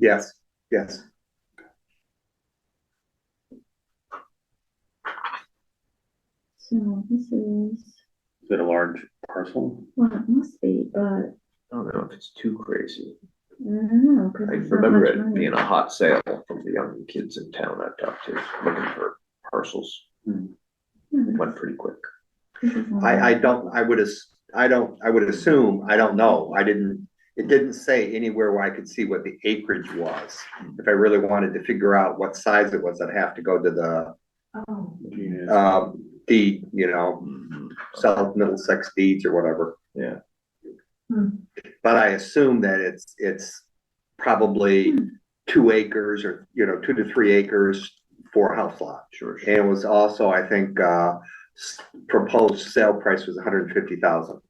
Yes, yes. So this is, Is it a large parcel? well, it must be, but I don't know if it's too crazy. I don't know. 'cause I it's not remember much it money. being a hot sale from the young kids in town I've talked to, looking for parcels, Yeah, but went pretty quick. this is only- I, I don't, I would, as- I don't, I would assume, I don't know, I didn't, it didn't say anywhere where I could see what the acreage was. If I really wanted to figure out what size it was, I'd have to go to the, Oh, Yeah. um, deed, you know, Mm-hmm. South Middlesex deeds or whatever. Yeah. hmm. But I assume that it's, it's probably two acres or, you know, two to three acres for a house lot. Sure, sure. And it was also, I think, uh, s- proposed sale price was hundred and fifty thousand.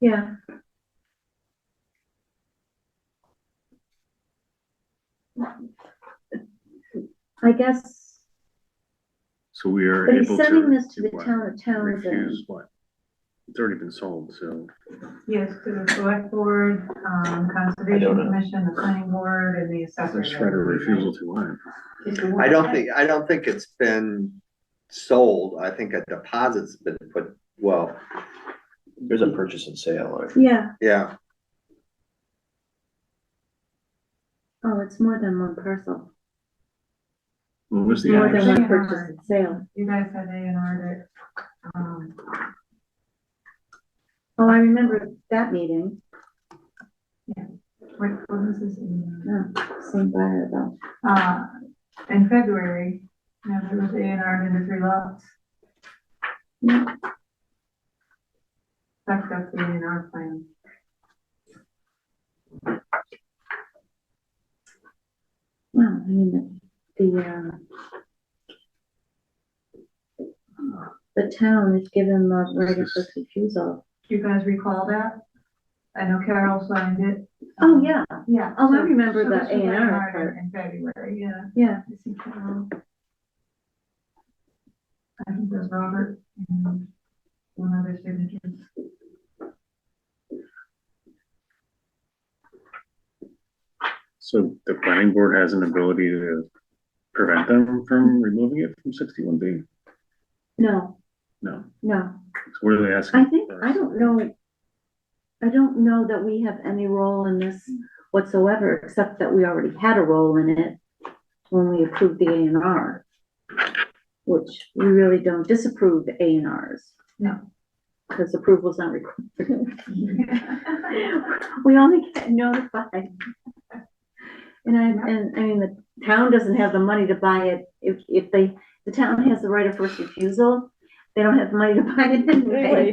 yeah. I guess, So we are but able to. he's sending this to the what? town of Townsend. Refuse what? It's already been sold, so. Yes, to the select board, um, don't conservation know. commission, the planning board and the assessor. There's right of refusal to what? I don't think, I don't think it's been sold, I think a deposit's been put, well, There's a purchase and sale, or Yeah, yeah, oh, it's more than one parcel, What was the more than address? one Yeah. purchase and sale. You guys had A and R that, um, Oh, I remember that meeting, what, what was this? in? no, Oh, same buyer though. Uh, in February, now there was A and R into three lots, Yeah, that's got the A and R plan. well, I mean, the, the, um, the town is given the right of first refusal. Do you guys recall that? I know Carol signed it. Oh, yeah, Yeah. Oh, I so- remember so the this was A&R A&R part. In February, yeah. yeah, I think, um, I think there's Robert and one other signature. So the planning board has an ability to prevent them from removing it from sixty-one B? no, No. no, So what are they asking? I think, for? I don't know, I don't know that we have any role in this whatsoever, except that we already had a role in it when we approved the A and R, which we really don't disapprove the A and Rs. No. Because approval's not required. We only get notified. And I, and I mean, the town doesn't have the money to buy it. If, if they, the town has the right of first refusal, they don't have the money to buy it anyway.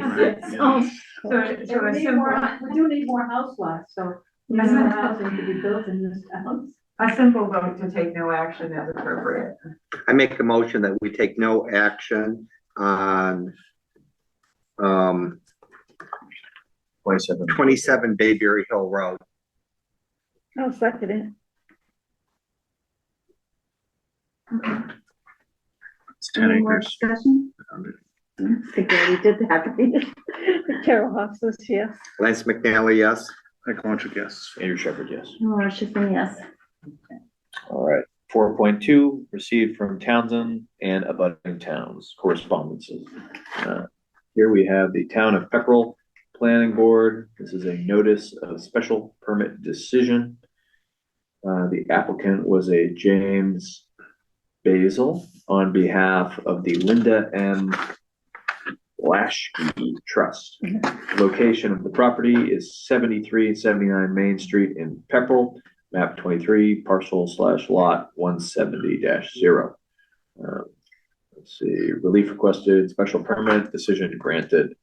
Right, So, yeah. So, so And a we need more, simple, we do need more house lots, so Yeah. there's more housing to be built in this town. a simple vote to take no action is appropriate. I make a motion that we take no action on um, twenty-seven. twenty-seven Bayberry Hill Road. I'll second it. Okay. It's ten Any more acres. discussion? I think we already did that. Carol Hofstas, yes. Lance McNally, yes? I can't guess. Andrew Shepherd, yes. Laura Schiffern, yes. All right, four point two, received from Townsend and abutting towns, correspondences. Uh, Here we have the town of Peckrell Planning Board. This is a notice of special permit decision. Uh, the applicant was a James Basil on behalf of the Linda M. Lashkey Trust. Location of the property is seventy-three seventy-nine Main Street in Peckrell map twenty-three, parcel slash lot one seventy zero. Uh, Let's see, relief requested, special permit, decision granted.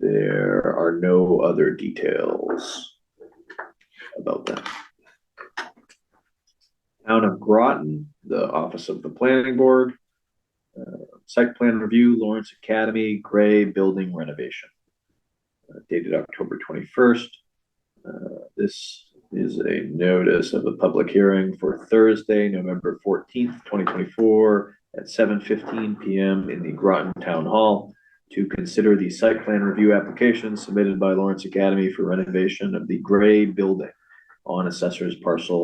There are no other details about that. Town of Groton, the office of the planning board. uh, Site plan review, Lawrence Academy, gray building renovation. uh, Dated October twenty-first. This is a notice of a public hearing for Thursday, November fourteenth, twenty twenty-four at seven fifteen PM in the Groton Town Hall to consider the site plan review application submitted by Lawrence Academy for renovation of the gray building on assessor's parcel